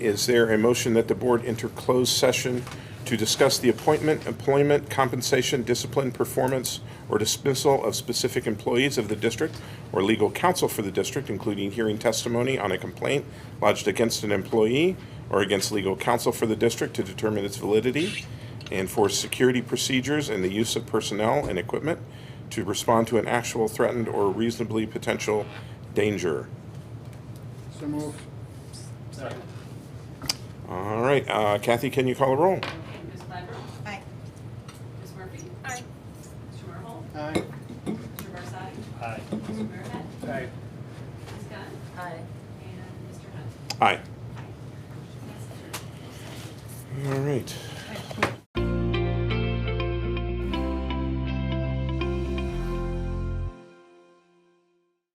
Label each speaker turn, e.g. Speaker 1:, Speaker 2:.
Speaker 1: Is there a motion that the board enter closed session to discuss the appointment, employment, compensation, discipline, performance, or dismissal of specific employees of the district or legal counsel for the district, including hearing testimony on a complaint lodged against an employee or against legal counsel for the district to determine its validity, and for security procedures and the use of personnel and equipment to respond to an actual threatened or reasonably potential danger?
Speaker 2: So move.
Speaker 1: All right, uh, Kathy, can you call a roll?
Speaker 3: Ms. Claver?
Speaker 4: Aye.
Speaker 3: Ms. Murphy? Aye. Mr. Murhol?
Speaker 2: Aye.
Speaker 3: Mr. Barsadi?
Speaker 2: Aye.
Speaker 3: Mr. Merhead?
Speaker 2: Aye.
Speaker 3: Ms. Gunn?
Speaker 4: Aye.
Speaker 3: And Mr. Hunt?
Speaker 1: Aye.
Speaker 3: Yes, sir.
Speaker 1: All right.